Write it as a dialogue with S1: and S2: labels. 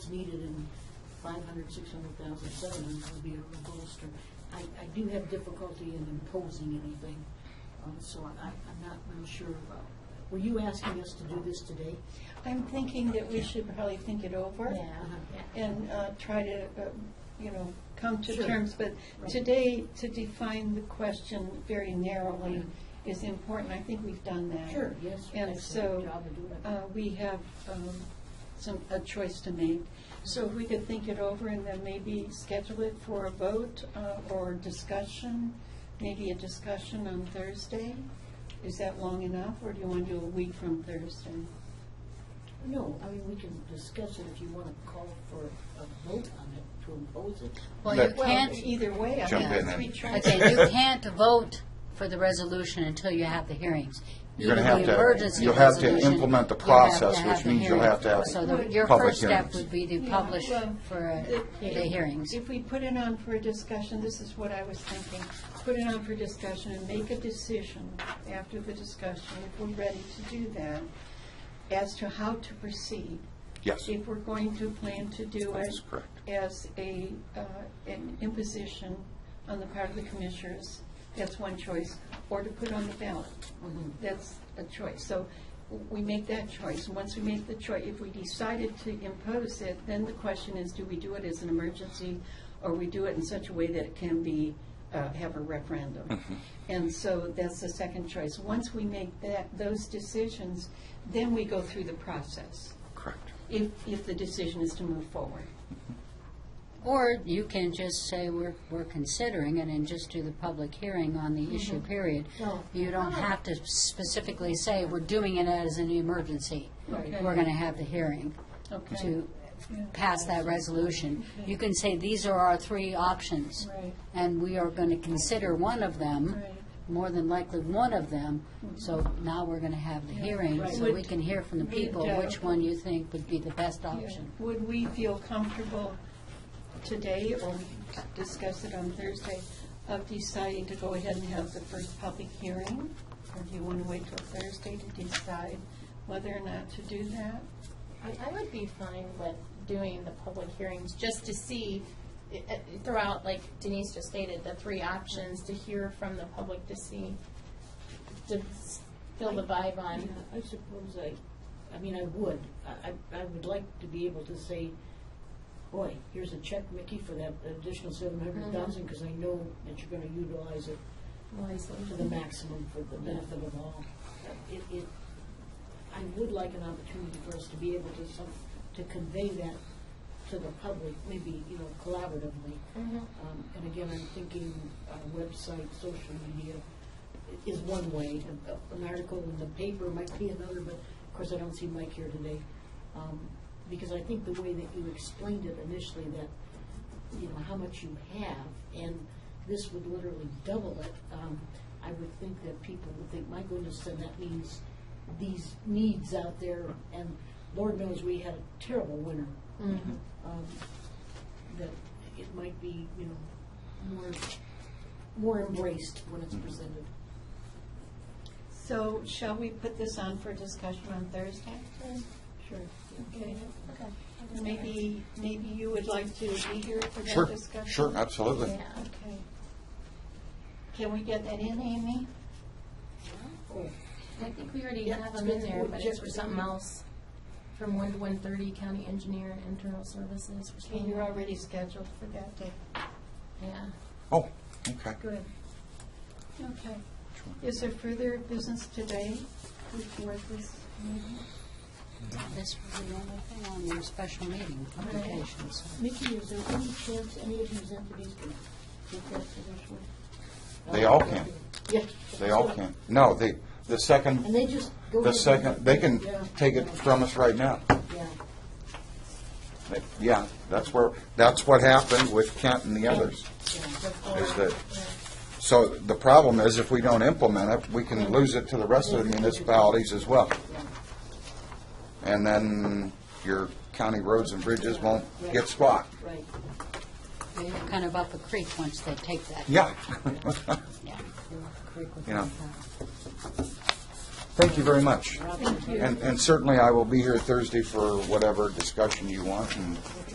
S1: needed and five hundred, six hundred thousand, seven hundred would be a bolster. I, I do have difficulty in imposing anything, um, so I, I'm not real sure about. Were you asking us to do this today?
S2: I'm thinking that we should probably think it over.
S1: Uh-huh.
S2: And uh, try to, uh, you know, come to
S1: Sure.
S2: terms. But
S1: Right.
S2: today, to define the question very narrowly is important. I think we've done that.
S1: Sure, yes.
S2: And
S1: that's a good
S2: so
S1: job of doing it.
S2: uh, we have um, some, a choice to make. So if we could think it over and then maybe schedule it for a vote uh, or discussion, maybe a discussion on Thursday? Is that long enough, or do you want to do a week from Thursday?
S1: No, I mean, we can discuss it if you want to call for a vote on it to impose it.
S3: Well, you
S4: Let-
S2: Well,
S3: can't,
S2: either way, I
S4: Jump
S2: think
S4: in
S2: we
S4: then.
S2: try.
S3: okay, you can't vote for the resolution until you have the hearings.
S4: You're gonna
S3: Even
S4: have
S3: the
S4: to-
S3: emergency
S4: you'll have to
S3: resolution,
S4: implement the
S3: you'll have to
S4: process,
S3: have
S4: which
S3: the
S4: means you'll
S3: hearing.
S4: have to have
S3: So the- your
S4: public
S3: first step
S4: hearings.
S3: would be to
S2: Yeah,
S3: publish
S2: well, um,
S3: for uh,
S2: the-
S3: the hearings.
S2: If we put it on for a discussion, this is what I was thinking, put it on for discussion and make a decision after the discussion, if we're ready to do that, as to how to proceed.
S4: Yes.
S2: If we're going to plan to do it.
S4: That's correct.
S2: As a, uh, an imposition on the part of the commissioners, that's one choice, or to put on the ballot. That's a choice. So we make that choice. And Once we make the choice, if we decided to impose it, then the question is, do we do it as an emergency? Or we do it in such a way that it can be, uh, have a referendum? And so that's the second choice. Once we make that, those decisions, then we go through the process,
S4: Correct.
S2: if, if the decision is to move forward.
S3: Or you can just say, we're, we're considering it and just do the public hearing on
S2: Mm-hmm.
S3: the issue, period.
S1: No.
S3: You don't have to specifically say, we're doing it as an emergency.
S2: Right.
S3: We're going to have the hearing
S2: Okay?
S3: to pass that resolution. You can say, these are our three options.
S2: Right.
S3: And we are going to consider one of them,
S2: Right.
S3: more than likely one of them. So now we're going to have the hearing,
S2: Right.
S3: so we
S2: Would-
S3: can hear from the
S2: would,
S3: people
S2: uh,
S3: which one you think would be the best option.
S2: Would we feel comfortable today, or we could discuss it on Thursday, of deciding to go ahead and have the first public hearing? Or do you want to wait till Thursday to decide whether or not to do that?
S5: I, I would be fine with doing the public hearings, just to see, i- i- throughout, like Denise just stated, the three options, to hear from the public, to see, to s- feel the vibe on.
S1: Yeah, I suppose I, I mean, I would. I, I- I would like to be able to say, boy, here's a check, Mickey, for that additional seven hundred thousand, because I know that you're gonna utilize it to
S5: Mm-hmm.
S1: the maximum for the benefit of all. It, it, I would like an opportunity for us to be able to some, to convey that to the public, maybe, you know, collaboratively.
S5: Mhm.
S1: Um, And again, I'm thinking uh, website, social media is one way. A- a- An article in the paper might be another, but of course, I don't see Mike here today. Um, Because I think the way that you explained it initially, that, you know, how much you have, and this would literally double it, um, I would think that people would think, my goodness, then that means these needs out there, and Lord knows we had a terrible winter.
S5: Mm-hmm.
S1: Um, that it might be, you know, more, more embraced when
S4: Mm-hmm.
S1: it's presented.
S2: So shall we put this on for discussion on Thursday?
S1: Sure.
S2: Okay. Maybe, maybe you would like to be here for
S4: Sure,
S2: that discussion?
S4: sure, absolutely.
S5: Yeah.
S2: Okay. Can we get that in, Amy?
S1: Cool.
S5: I think we already
S1: Yeah,
S5: have
S1: it's
S5: them in
S1: been-
S5: there, but it's for
S1: just-
S5: something else, from one to one thirty, county engineer, internal services, or
S2: Okay,
S5: something.
S2: you're already scheduled for that day.
S5: Yeah.
S4: Oh, okay.
S2: Good. Okay. Is there further business today before this meeting?
S3: This was the only thing on your special meeting publications.
S1: Mickey, is there any chance any of these entities can take that position?
S4: They all can.
S1: Yeah.
S4: They all can. No, they, the
S1: And
S4: second,
S1: they just go. ahead
S4: the
S1: and-
S4: second, they can
S1: Yeah.
S4: take it from us right now.
S1: Yeah.
S4: They- Yeah, that's where, that's what happened with Kent and the others. Is that, so the problem is if we don't implement it, we can lose it to the rest of the municipalities as well. And then your county roads and bridges won't get spot.
S1: Right.
S3: They're kind of up a creek once they take that.
S4: Yeah.
S3: Yeah, they're up a creek with
S4: You know.
S3: that.
S4: Thank you very much.
S2: Thank you.
S4: And, and certainly I will be here Thursday for whatever discussion you want and